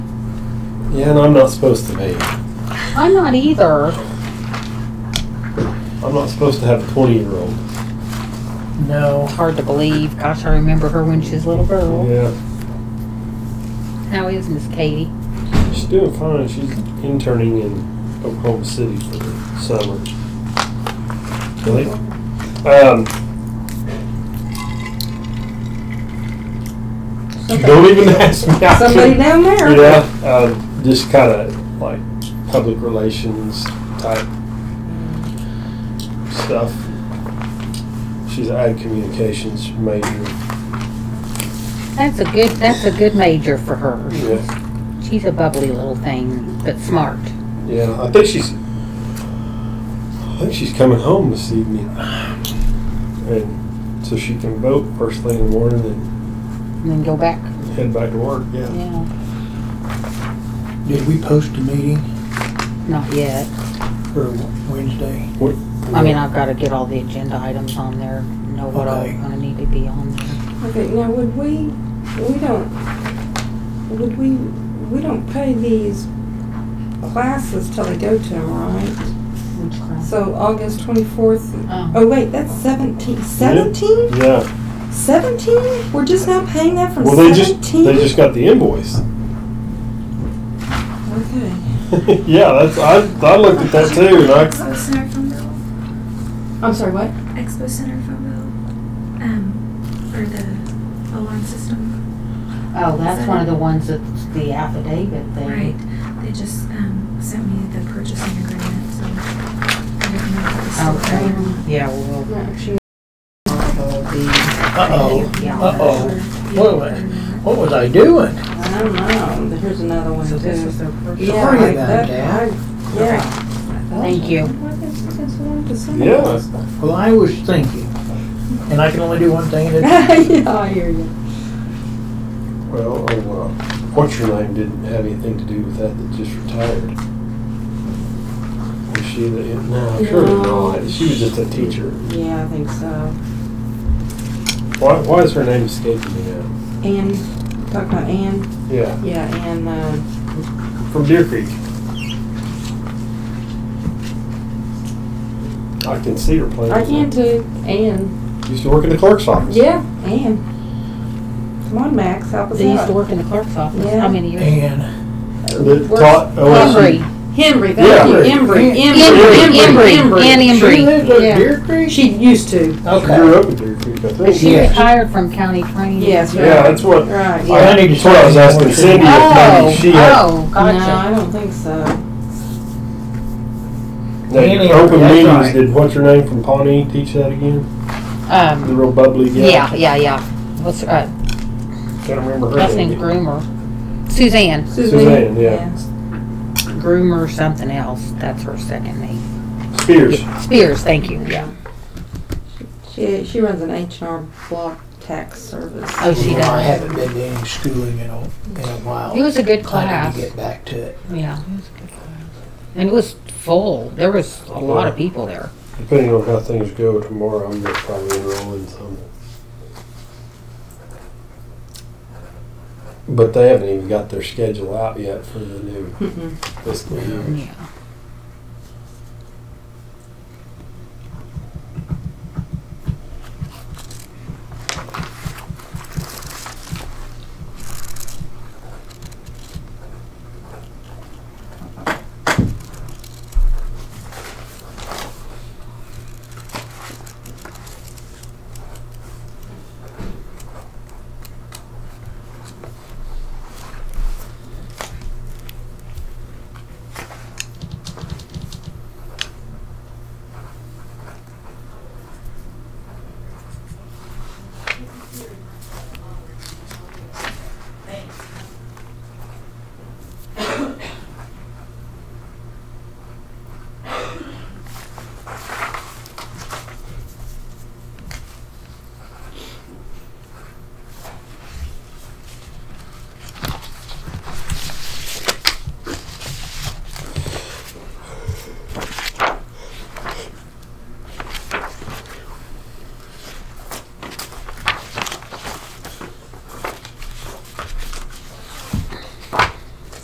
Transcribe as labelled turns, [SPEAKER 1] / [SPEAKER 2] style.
[SPEAKER 1] Yeah, and I'm not supposed to be.
[SPEAKER 2] I'm not either.
[SPEAKER 1] I'm not supposed to have a 20 year old.
[SPEAKER 3] No.
[SPEAKER 2] Hard to believe. Gosh, I remember her when she was a little girl.
[SPEAKER 1] Yeah.
[SPEAKER 2] How is Miss Katie?
[SPEAKER 1] She's doing fine. She's interning in Oklahoma City for the summer. Really? Um, don't even ask me. I
[SPEAKER 4] Somebody
[SPEAKER 1] couldn't-
[SPEAKER 4] down there.
[SPEAKER 1] Yeah, um, just kind of like public relations type stuff. She's an ad communications major.
[SPEAKER 2] That's a good. That's a good major for her.
[SPEAKER 1] Yeah,
[SPEAKER 2] She's a bubbly little thing, but smart.
[SPEAKER 1] yeah. I think she's. I think she's coming home this evening, and so she can vote first thing in the morning
[SPEAKER 2] And then go back.
[SPEAKER 1] and head back to work. Yeah.
[SPEAKER 2] Yeah.
[SPEAKER 3] Did we post a meeting
[SPEAKER 2] Not yet.
[SPEAKER 3] for Wednesday?
[SPEAKER 1] What-
[SPEAKER 2] I mean, I've got to get all the agenda items on there. Know what all
[SPEAKER 3] Okay.
[SPEAKER 2] I'm gonna need to be on there.
[SPEAKER 4] Okay, now would we, we don't, would we, we don't pay these classes till they go to them, right?
[SPEAKER 2] Which class?
[SPEAKER 4] So August twenty-fourth,
[SPEAKER 2] Oh,
[SPEAKER 4] oh wait, that's seventeen, seventeen?
[SPEAKER 1] Yeah.
[SPEAKER 4] Seventeen? We're just now paying that from
[SPEAKER 1] Well, they just
[SPEAKER 4] seventeen?
[SPEAKER 1] they just got the invoice.
[SPEAKER 4] Okay.
[SPEAKER 1] yeah, that's I, I looked at that too, and I
[SPEAKER 5] Expo Center phone bill.
[SPEAKER 4] I'm sorry, what?
[SPEAKER 5] Expo Center phone bill. Um, or the alarm system.
[SPEAKER 2] oh, that's one of the ones that's the affidavit
[SPEAKER 5] Right.
[SPEAKER 2] thing.
[SPEAKER 5] They just um, sent me the purchasing agreement, so I didn't know if it was still
[SPEAKER 2] Okay.
[SPEAKER 5] there.
[SPEAKER 2] Yeah, well,
[SPEAKER 4] No, she,
[SPEAKER 2] it'll be.
[SPEAKER 3] Uh-oh.
[SPEAKER 2] Yeah.
[SPEAKER 3] Uh-oh. What was, what was I doing?
[SPEAKER 4] I don't know, here's another one too.
[SPEAKER 2] their first.
[SPEAKER 4] Yeah,
[SPEAKER 3] Sorry
[SPEAKER 4] like
[SPEAKER 3] about that.
[SPEAKER 4] I- Yeah.
[SPEAKER 2] Thank you.
[SPEAKER 4] Why is it so long to send
[SPEAKER 1] Yeah.
[SPEAKER 4] us?
[SPEAKER 3] Well, I was thinking, and I can only do one thing at a
[SPEAKER 4] Yeah, I hear you.
[SPEAKER 1] Well, oh, well, what's your name didn't have anything to do with that, that just retired. Was she the, no, surely
[SPEAKER 4] No.
[SPEAKER 1] not, she was just a teacher.
[SPEAKER 4] Yeah, I think so.
[SPEAKER 1] Why, why is her name escaping me now?
[SPEAKER 4] Ann, talk about Ann.
[SPEAKER 1] Yeah,
[SPEAKER 4] Yeah, Ann. Uh,
[SPEAKER 1] from Deer Creek. I can see her playing.
[SPEAKER 4] I can too. Ann.
[SPEAKER 1] Used to work in the clerk's office.
[SPEAKER 4] Yeah, Ann. Come on, Max, help us
[SPEAKER 2] They used
[SPEAKER 4] out.
[SPEAKER 2] to work in the clerk's office.
[SPEAKER 4] Yeah.
[SPEAKER 2] How many years?
[SPEAKER 3] And
[SPEAKER 1] That taught
[SPEAKER 2] Henry.
[SPEAKER 1] OSU.
[SPEAKER 4] Henry,
[SPEAKER 1] Yeah.
[SPEAKER 4] thank you. Embry,
[SPEAKER 2] Embry, Embry,
[SPEAKER 4] Embry,
[SPEAKER 2] Ann
[SPEAKER 4] Embry.
[SPEAKER 2] Embry.
[SPEAKER 3] She lived up
[SPEAKER 2] Yeah.
[SPEAKER 3] Deer Creek?
[SPEAKER 4] She used to.
[SPEAKER 1] She
[SPEAKER 3] Okay.
[SPEAKER 1] grew up in Deer Creek, I
[SPEAKER 2] But
[SPEAKER 1] think.
[SPEAKER 2] she
[SPEAKER 3] Yes.
[SPEAKER 2] retired from county training.
[SPEAKER 4] Yes, right.
[SPEAKER 1] Yeah, that's what,
[SPEAKER 4] Right.
[SPEAKER 3] Yeah. I need to
[SPEAKER 1] that's what I was
[SPEAKER 3] say
[SPEAKER 1] asking
[SPEAKER 3] more.
[SPEAKER 1] Cindy, if
[SPEAKER 2] Oh,
[SPEAKER 1] maybe she had
[SPEAKER 2] oh,
[SPEAKER 4] No, I
[SPEAKER 2] gotcha.
[SPEAKER 4] don't think so.
[SPEAKER 1] Now,
[SPEAKER 3] Annie,
[SPEAKER 1] open
[SPEAKER 3] that's
[SPEAKER 1] meetings.
[SPEAKER 3] right.
[SPEAKER 1] Did what's her name from Pawnee teach that again? The
[SPEAKER 2] Um,
[SPEAKER 1] real bubbly guy.
[SPEAKER 2] yeah, yeah, yeah. What's, uh,
[SPEAKER 1] Can't remember her
[SPEAKER 2] last name
[SPEAKER 1] name.
[SPEAKER 2] Groomer. Suzanne,
[SPEAKER 1] Suzanne, yeah.
[SPEAKER 2] Groomer something else. That's her second name.
[SPEAKER 1] Spears.
[SPEAKER 2] Spears, thank you, yeah.
[SPEAKER 4] She she runs an H and R Block tax service.
[SPEAKER 2] Oh, she
[SPEAKER 3] You know,
[SPEAKER 2] does.
[SPEAKER 3] I haven't been to any schooling in a, in a while.
[SPEAKER 2] It was a good
[SPEAKER 3] I
[SPEAKER 2] class.
[SPEAKER 3] need to get back to it.
[SPEAKER 2] Yeah. it was a good class. And it was full. There was a lot of people there.
[SPEAKER 1] Depending on how things go tomorrow, I'm gonna probably enroll in some. But they haven't even got their schedule out yet for the new
[SPEAKER 4] Mm-mm.
[SPEAKER 1] fiscal year.
[SPEAKER 2] Yeah.